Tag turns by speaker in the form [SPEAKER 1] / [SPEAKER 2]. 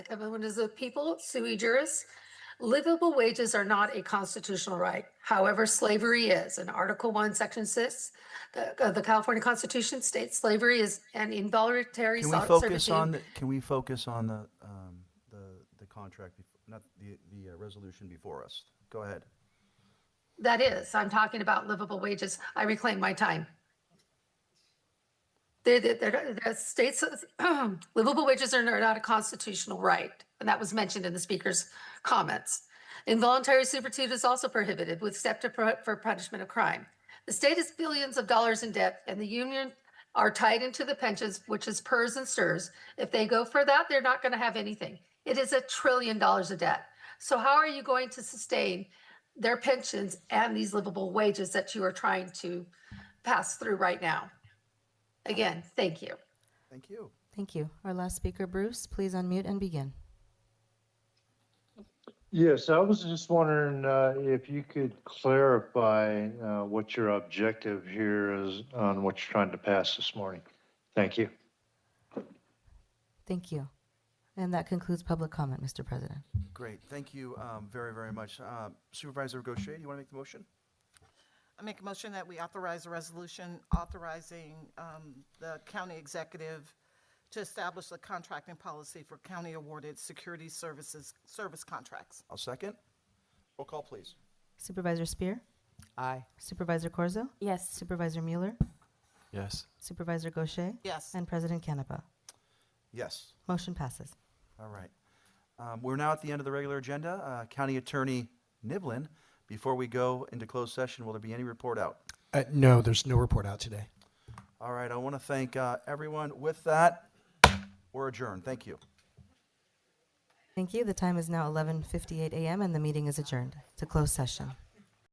[SPEAKER 1] everyone is the people, sui juris. Livable wages are not a constitutional right. However, slavery is. In Article One, Section Six, the, of the California Constitution states slavery is an involuntary
[SPEAKER 2] Can we
[SPEAKER 1] sol-
[SPEAKER 2] focus on,
[SPEAKER 1] servitude.
[SPEAKER 2] the- can we focus on the, um, the, the contract, bef- not the, the uh, resolution before us? Go ahead.
[SPEAKER 1] That is, I'm talking about livable wages. I reclaim my time. The, the, the, the states, livable wages are not a constitutional right, and that was mentioned in the speaker's comments. Involuntary servitude is also prohibited with except for for punishment of crime. The state is billions of dollars in debt, and the union are tied into the pensions, which is PERS and STIRS. If they go for that, they're not going to have anything. It is a trillion dollars of debt. So how are you going to sustain their pensions and these livable wages that you are trying to pass through right now? Again, thank you.
[SPEAKER 2] Thank you.
[SPEAKER 3] Thank you. Our last speaker, Bruce, please unmute and begin.
[SPEAKER 4] Yes, I was just wondering uh, if you could clarify uh, what your objective here is on what you're trying to pass this morning. Thank you.
[SPEAKER 3] Thank you. And that concludes public comment, Mr. President.
[SPEAKER 2] Great, thank you, um, very, very much. Uh, Supervisor Gaucher, do you want to make the motion?
[SPEAKER 5] I make a motion that we authorize a resolution authorizing um, the county executive to establish a contracting policy for county-awarded security services, service contracts.
[SPEAKER 2] I'll second. Roll call, please.
[SPEAKER 3] Supervisor Spear?
[SPEAKER 6] Aye.
[SPEAKER 3] Supervisor Corzo?
[SPEAKER 7] Yes.
[SPEAKER 3] Supervisor Mueller?
[SPEAKER 6] Yes.
[SPEAKER 3] Supervisor Gaucher?
[SPEAKER 5] Yes.
[SPEAKER 3] And President Canepa.
[SPEAKER 2] Yes,
[SPEAKER 3] Motion passes.
[SPEAKER 2] all right. Um, we're now at the end of the regular agenda. Uh, County Attorney Niblin, before we go into closed session, will there be any report out?
[SPEAKER 8] Uh, no, there's no report out today.
[SPEAKER 2] All right, I want to thank, uh, everyone. With that, we're adjourned. Thank you.
[SPEAKER 3] Thank you. The time is now 11:58 a.m. and the meeting is adjourned to close session.